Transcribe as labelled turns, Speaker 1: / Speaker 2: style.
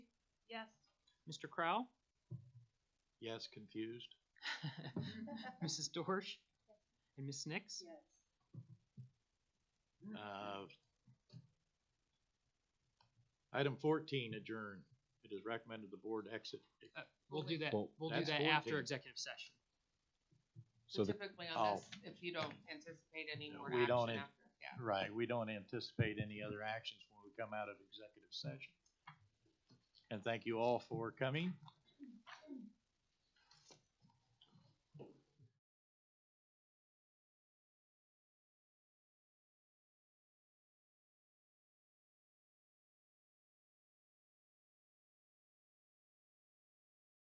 Speaker 1: Mr. Crowell?
Speaker 2: Yes, confused.
Speaker 1: Mrs. Dorsch? And Ms. Nix?
Speaker 3: Yes.
Speaker 2: Uh, Item fourteen, adjourn. It is recommended the board exit.
Speaker 1: Uh, We'll do that,
Speaker 4: Well,
Speaker 1: we'll do
Speaker 2: that's
Speaker 1: that after
Speaker 2: 14.
Speaker 1: executive session.
Speaker 4: So
Speaker 3: So
Speaker 4: the-
Speaker 3: typically
Speaker 2: Oh.
Speaker 3: on this, if you don't anticipate any
Speaker 2: No,
Speaker 3: more
Speaker 2: we don't
Speaker 3: action
Speaker 2: an-
Speaker 3: after, yeah.
Speaker 2: Right, we don't anticipate any other actions when we come out of executive session. And thank you all for coming.